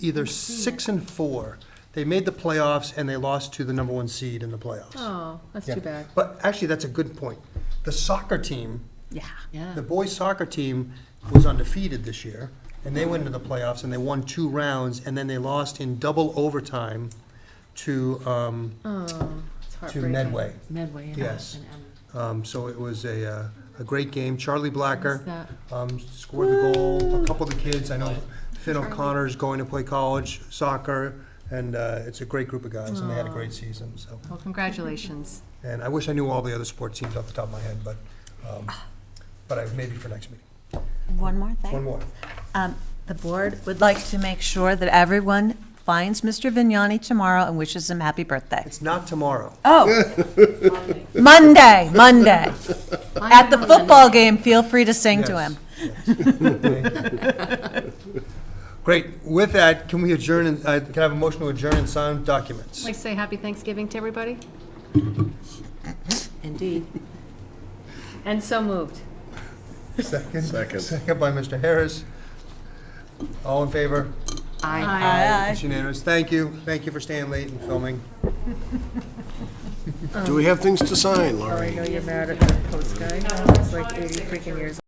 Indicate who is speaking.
Speaker 1: either six and four. They made the playoffs and they lost to the number one seed in the playoffs.
Speaker 2: Oh, that's
Speaker 1: Yeah.
Speaker 2: too bad.
Speaker 1: But actually, that's a good point. The soccer team,
Speaker 2: Yeah. Yeah.
Speaker 1: the boys soccer team was undefeated this year, and they went into the playoffs and they won two rounds, and then they lost in double overtime to, um,
Speaker 2: Oh, it's
Speaker 1: to
Speaker 2: heartbreaking.
Speaker 1: Medway.
Speaker 2: Medway. And
Speaker 1: Yes.
Speaker 2: And, um,
Speaker 1: Um, so it was a, uh, a great game. Charlie
Speaker 2: what's
Speaker 1: Blacker,
Speaker 2: that?
Speaker 1: um, scored the goal. A couple of the kids, I know Finn O'Connor's going to play college soccer, and uh, it's a great group of guys, and they had a great season. So,
Speaker 2: Well, congratulations.
Speaker 1: and I wish I knew all the other sports teams off the top of my head, but, um, but I, maybe for next meeting.
Speaker 3: One more
Speaker 1: One
Speaker 3: thing.
Speaker 1: more.
Speaker 3: Um, The board would like to make sure that everyone finds Mr. Vignani tomorrow and wishes him happy birthday.
Speaker 1: It's not tomorrow.
Speaker 3: Oh, Monday, Monday. At the football game, feel free to sing to
Speaker 1: Yes.
Speaker 3: him.
Speaker 1: Great. With that, can we adjourn, and uh, can I have a motion to adjourn and sign documents?
Speaker 2: Like to say happy Thanksgiving to everybody.
Speaker 3: Indeed.
Speaker 2: And so moved.
Speaker 1: Second. Second. Second by Mr. Harris. All in favor?
Speaker 2: Aye.
Speaker 3: Aye.
Speaker 1: It's unanimous. Thank you. Thank you for staying late and filming.
Speaker 4: Do we have things to sign, Laurie?
Speaker 5: I know you're mad at that post guy. It's like 80 freaking years